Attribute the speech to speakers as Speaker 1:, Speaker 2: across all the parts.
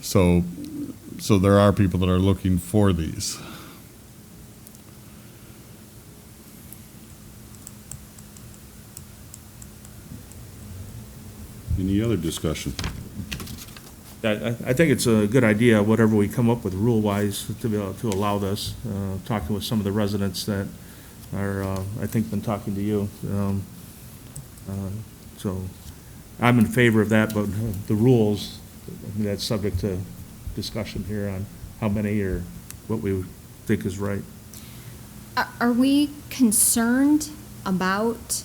Speaker 1: So, so there are people that are looking for these.
Speaker 2: Any other discussion?
Speaker 3: I, I- I think it's a good idea, whatever we come up with rule-wise, to be, able to allow this. Uh, Talking with some of the residents that are, uh, I think, been talking to you. um, uh, So I'm in favor of that, but the rules, I mean, that's subject to discussion here on how many or what we think is right.
Speaker 4: Are- Are we concerned about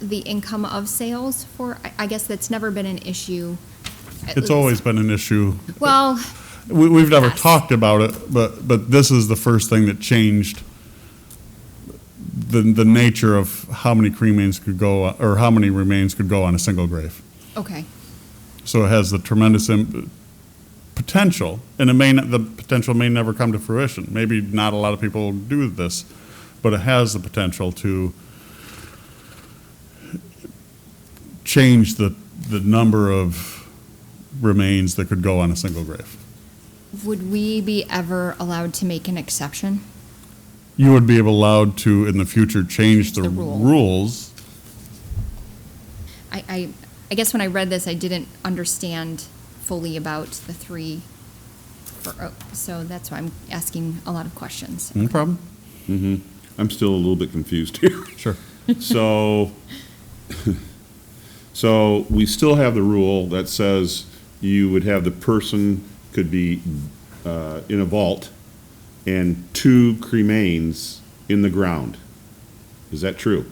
Speaker 4: the income of sales for, I- I guess that's never been an issue. at
Speaker 1: It's
Speaker 4: least-
Speaker 1: always been an issue.
Speaker 4: Well,
Speaker 1: We, we've never
Speaker 4: Yes.
Speaker 1: talked about it, but, but this is the first thing that changed the, the nature of how many cremains could go, or how many remains could go on a single grave.
Speaker 4: okay,
Speaker 1: So it has the tremendous im- potential, and it may not, the potential may never come to fruition. Maybe not a lot of people do this, but it has the potential to change the, the number of remains that could go on a single grave.
Speaker 4: would we be ever allowed to make an exception?
Speaker 1: You would be allowed to, in the future, change the
Speaker 4: The rule.
Speaker 1: rules.
Speaker 4: I, I, I guess when I read this, I didn't understand fully about the three, for- oh, so that's why I'm asking a lot of questions.
Speaker 1: No problem.
Speaker 2: I'm still a little bit confused here.
Speaker 1: Sure.
Speaker 2: So, so we still have the rule that says you would have the person could be uh, in a vault and two cremains in the ground. Is that true?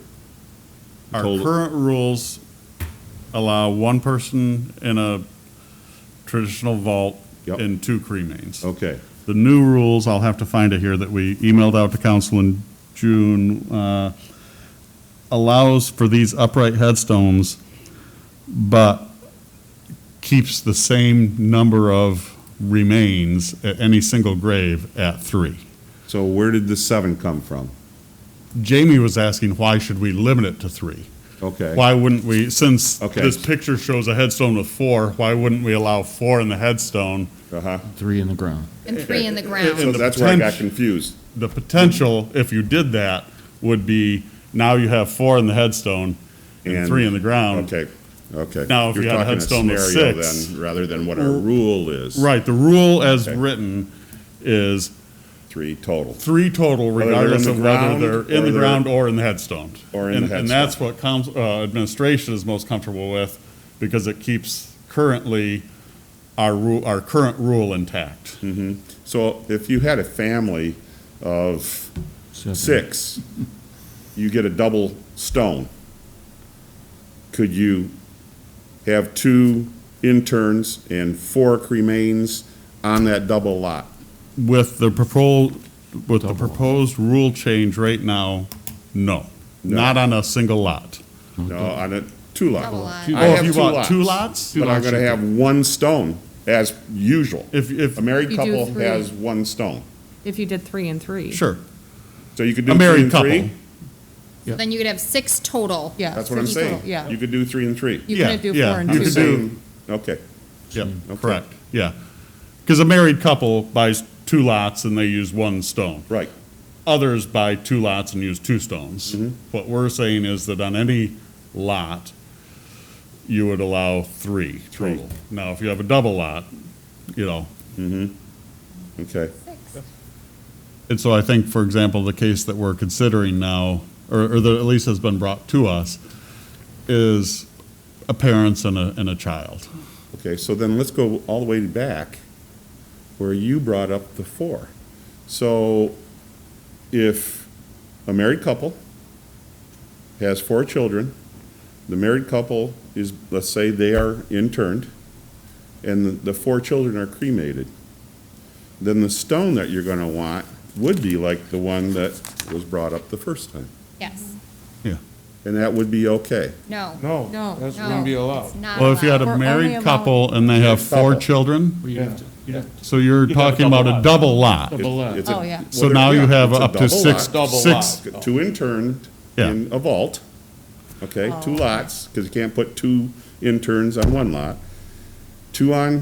Speaker 1: Our
Speaker 2: Total-
Speaker 1: current rules allow one person in a traditional vault
Speaker 2: Yep.
Speaker 1: and two cremains.
Speaker 2: Okay,
Speaker 1: The new rules, I'll have to find it here, that we emailed out to council in June, uh, allows for these upright headstones, but keeps the same number of remains at any single grave at three.
Speaker 2: so where did the seven come from?
Speaker 1: Jamie was asking, why should we limit it to three?
Speaker 2: Okay.
Speaker 1: Why wouldn't we, since
Speaker 2: Okay.
Speaker 1: this picture shows a headstone with four, why wouldn't we allow four in the headstone?
Speaker 2: Uh-huh.
Speaker 5: Three in the ground.
Speaker 4: And three in the
Speaker 2: So
Speaker 1: And
Speaker 4: ground.
Speaker 1: the
Speaker 2: that's where I got
Speaker 1: potent-
Speaker 2: confused.
Speaker 1: The potential, if you did that, would be now you have four in the headstone and
Speaker 2: And-
Speaker 1: three in the ground.
Speaker 2: Okay, okay.
Speaker 1: Um, Now, if
Speaker 2: You're
Speaker 1: you had a
Speaker 2: talking
Speaker 1: headstone with
Speaker 2: scenario
Speaker 1: six-
Speaker 2: then, Rather than what our rule is.
Speaker 1: Right, the rule as
Speaker 2: Okay.
Speaker 1: written is
Speaker 2: Three total.
Speaker 1: three total
Speaker 2: they're in
Speaker 1: regardless
Speaker 2: the
Speaker 1: of whether
Speaker 2: ground
Speaker 1: they're in
Speaker 2: or
Speaker 1: the
Speaker 2: they're-
Speaker 1: ground or in the headstone.
Speaker 2: Or in
Speaker 1: And-
Speaker 2: the
Speaker 1: And that's what council, uh, administration is most comfortable with because it keeps currently our rule, our current rule intact.
Speaker 2: So if you had a family of
Speaker 5: Seven.
Speaker 2: six, you get a double stone. Could you have two interns and four cremains on that double lot?
Speaker 1: With the proposed, with the
Speaker 5: Double.
Speaker 1: proposed rule change right now, no.
Speaker 2: No.
Speaker 1: Not on a single lot.
Speaker 2: No, on a two lot.
Speaker 4: Double lot.
Speaker 2: I
Speaker 4: Oh,
Speaker 1: Oh, if
Speaker 2: have
Speaker 1: you
Speaker 2: two
Speaker 1: want two lots?
Speaker 2: lots, But I'm gonna have one stone as usual.
Speaker 1: If, if,
Speaker 2: A married
Speaker 6: You do
Speaker 2: couple
Speaker 6: three.
Speaker 2: has one stone.
Speaker 6: If you did three and three.
Speaker 1: sure,
Speaker 2: So you could do
Speaker 1: a
Speaker 2: three
Speaker 1: married
Speaker 2: and
Speaker 1: couple.
Speaker 2: three.
Speaker 4: Then you could have six total.
Speaker 6: Yeah.
Speaker 2: That's what I'm
Speaker 6: six total,
Speaker 2: saying.
Speaker 6: Yeah.
Speaker 2: You could do three and three.
Speaker 6: You
Speaker 1: yeah,
Speaker 6: couldn't do
Speaker 1: yeah,
Speaker 6: four and
Speaker 1: you
Speaker 2: I'm
Speaker 1: could
Speaker 6: two.
Speaker 1: do-
Speaker 2: saying, okay.
Speaker 1: Yep,
Speaker 2: Mm, Okay.
Speaker 1: correct, yeah. Because a married couple buys two lots and they use one stone.
Speaker 2: Right.
Speaker 1: Others buy two lots and use two stones.
Speaker 2: Mm-hmm.
Speaker 1: What we're saying is that on any lot, you would allow three
Speaker 2: Three.
Speaker 1: total. Now, if you have a double lot, you know,
Speaker 2: Okay.
Speaker 1: And so I think, for example, the case that we're considering now, or, or that at least has been brought to us, is a parents and a, and a child.
Speaker 2: Okay, so then let's go all the way back where you brought up the four. So if a married couple has four children, the married couple is, let's say they are interned, and the, the four children are cremated, then the stone that you're gonna want would be like the one that was brought up the first time.
Speaker 4: Yes,
Speaker 1: Yeah.
Speaker 2: And that would be okay.
Speaker 4: no.
Speaker 7: No,
Speaker 6: No,
Speaker 7: that's
Speaker 4: no,
Speaker 7: gonna be
Speaker 4: it's
Speaker 7: allowed.
Speaker 4: not
Speaker 1: Well, if you had
Speaker 4: allowed.
Speaker 1: a
Speaker 6: We're only
Speaker 1: married
Speaker 6: allowing-
Speaker 1: couple and they have four
Speaker 2: Couple.
Speaker 1: children,
Speaker 5: Well, you'd have to- you'd have
Speaker 1: so you're
Speaker 7: You'd have a
Speaker 1: talking about a double
Speaker 7: double
Speaker 1: lot.
Speaker 7: Double lot.
Speaker 2: It's a-
Speaker 6: Oh, yeah.
Speaker 1: So
Speaker 2: well,
Speaker 1: now
Speaker 2: yeah,
Speaker 1: you have
Speaker 2: it's a
Speaker 1: up to
Speaker 2: double
Speaker 1: six,
Speaker 2: lot.
Speaker 7: Double
Speaker 1: six,
Speaker 2: Two interned
Speaker 1: Yeah.
Speaker 2: in a vault,
Speaker 6: Oh.
Speaker 2: okay, two lots, because you can't put two interns on one lot. Two on